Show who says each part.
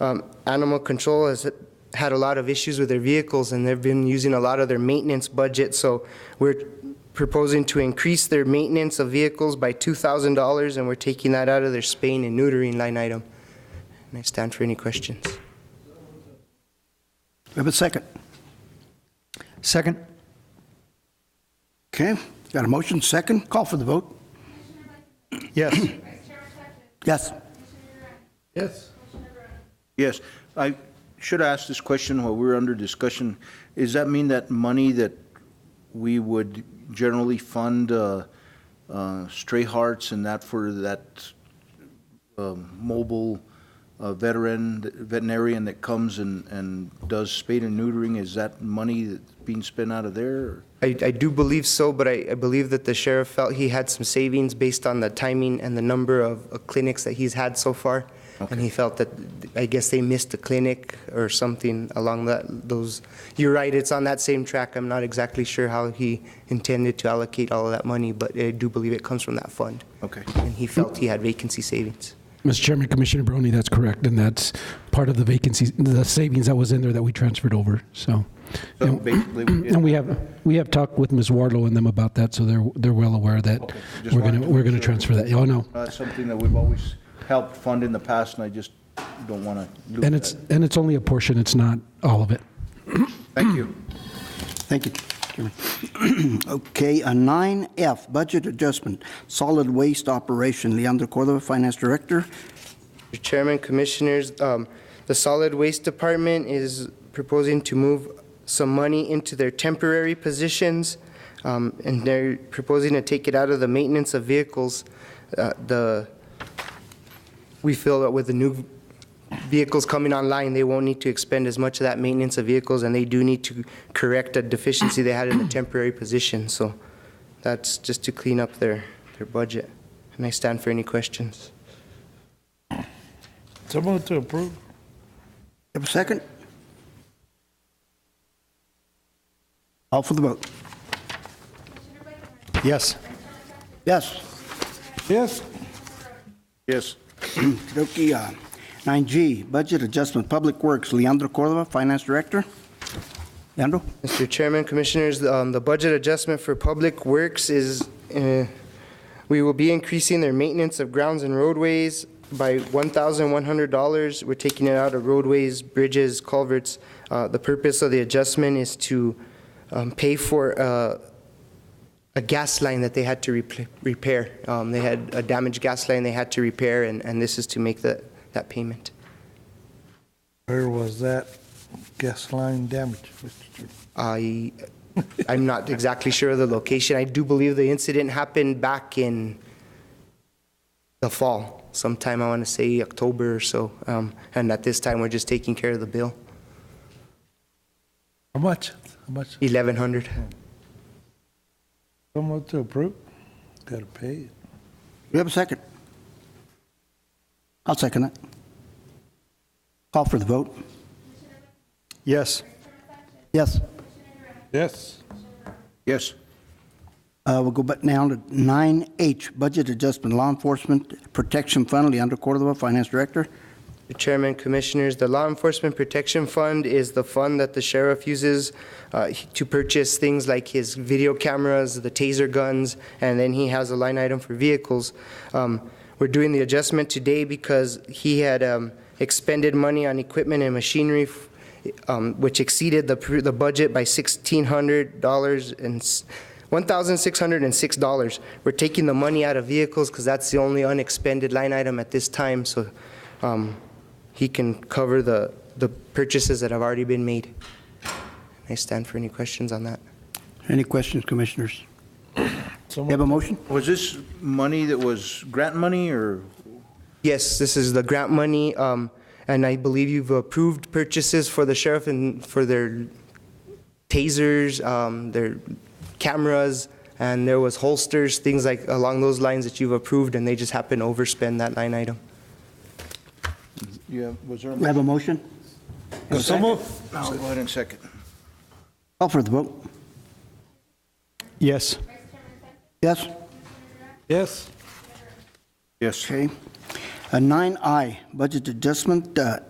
Speaker 1: um, animal control has had a lot of issues with their vehicles, and they've been using a lot of their maintenance budget, so we're proposing to increase their maintenance of vehicles by $2,000, and we're taking that out of their spaying and neutering line item. And I stand for any questions.
Speaker 2: Do I have a second?
Speaker 3: Second?
Speaker 2: Okay, got a motion, second, call for the vote.
Speaker 3: Yes.
Speaker 2: Yes.
Speaker 4: Yes.
Speaker 5: Yes, I should ask this question while we're under discussion. Does that mean that money that we would generally fund uh, uh, stray hearts and that for that um, mobile uh, veteran, veterinarian that comes and, and does spade and neutering, is that money that's being spent out of there? or-
Speaker 1: I, I do believe so, but I, I believe that the sheriff felt he had some savings based on the timing and the number of uh, clinics that he's had so far. And he felt that, I guess they missed a clinic or something along that, those, you're right, it's on that same track. I'm not exactly sure how he intended to allocate all of that money, but I do believe it comes from that fund.
Speaker 5: Okay.
Speaker 1: And he felt he had vacancy savings.
Speaker 6: Mr. Chairman, Commissioner Brony, that's correct, and that's part of the vacancies, the savings that was in there that we transferred over, so.
Speaker 5: So basically, we did-
Speaker 6: And we have, we have talked with Ms. Wardlow and them about that, so they're, they're well aware that
Speaker 5: just
Speaker 6: we're going
Speaker 5: wanted
Speaker 6: to,
Speaker 5: to
Speaker 6: we're going
Speaker 5: make
Speaker 6: to
Speaker 5: sure.
Speaker 6: transfer that. Oh, no.
Speaker 5: That's something that we've always helped fund in the past, and I just don't want to lose that.
Speaker 6: And it's, and it's only a portion, it's not all of it.
Speaker 5: Thank you.
Speaker 2: Thank you, Chairman. Okay, a 9F, budget adjustment, solid waste operation, Leandro Cordova, Finance Director.
Speaker 1: Mr. Chairman, Commissioners, um, the Solid Waste Department is proposing to move some money into their temporary positions, um, and they're proposing to take it out of the maintenance of vehicles. Uh, The, we feel that with the new vehicles coming online, they won't need to expend as much of that maintenance of vehicles, and they do need to correct a deficiency they had in the temporary position. So that's just to clean up their, their budget. And I stand for any questions.
Speaker 4: So moved to approve.
Speaker 2: Have a second? Call for the vote.
Speaker 3: Yes.
Speaker 2: Yes.
Speaker 4: Yes.
Speaker 5: Yes.
Speaker 2: Okey-dokey, uh, 9G, budget adjustment, Public Works, Leandro Cordova, Finance Director. Leandro?
Speaker 1: Mr. Chairman, Commissioners, um, the budget adjustment for Public Works is, uh, we will be increasing their maintenance of grounds and roadways by $1,100. We're taking it out of roadways, bridges, culverts. Uh, The purpose of the adjustment is to um, pay for uh, a gas line that they had to repl- repair. Um, They had a damaged gas line they had to repair, and and this is to make the- that payment.
Speaker 4: Where was that gas line damage, Mr. Chairman?
Speaker 1: I, I'm not exactly sure of the location. I do believe the incident happened back in the fall, sometime, I want to say October or so. Um, And at this time, we're just taking care of the bill,
Speaker 4: How much? How much?
Speaker 1: 1,100.
Speaker 4: So moved to approve. Got to pay it.
Speaker 2: We have a second? I'll second it. Call for the vote.
Speaker 3: Yes.
Speaker 2: Yes.
Speaker 4: Yes.
Speaker 5: Yes.
Speaker 2: Uh, We'll go back now to 9H, Budget Adjustment Law Enforcement Protection Fund, Leandro Cordova, Finance Director.
Speaker 1: Mr. Chairman, Commissioners, the Law Enforcement Protection Fund is the fund that the sheriff uses uh, to purchase things like his video cameras, the taser guns, and then he has a line item for vehicles. Um, We're doing the adjustment today because he had um, expended money on equipment and machinery, f- um, which exceeded the pr- the budget by $1,600 and, s- $1,606. We're taking the money out of vehicles because that's the only unexpended line item at this time, so um, he can cover the, the purchases that have already been made. I stand for any questions on that.
Speaker 2: Any questions, Commissioners?
Speaker 4: So
Speaker 2: You have a motion?
Speaker 5: Was this money that was grant money or?
Speaker 1: Yes, this is the grant money, um, and I believe you've approved purchases for the sheriff and for their tasers, um, their cameras, and there was holsters, things like along those lines that you've approved, and they just happen to overspend that line item.
Speaker 5: Yeah, was there? a
Speaker 2: We have a motion?
Speaker 4: So moved.
Speaker 5: I'll go ahead and second.
Speaker 2: Call for the vote.
Speaker 3: Yes.
Speaker 2: Yes?
Speaker 4: Yes.
Speaker 5: Yes.
Speaker 2: Okay. Uh, 9I, Budget Adjustment uh,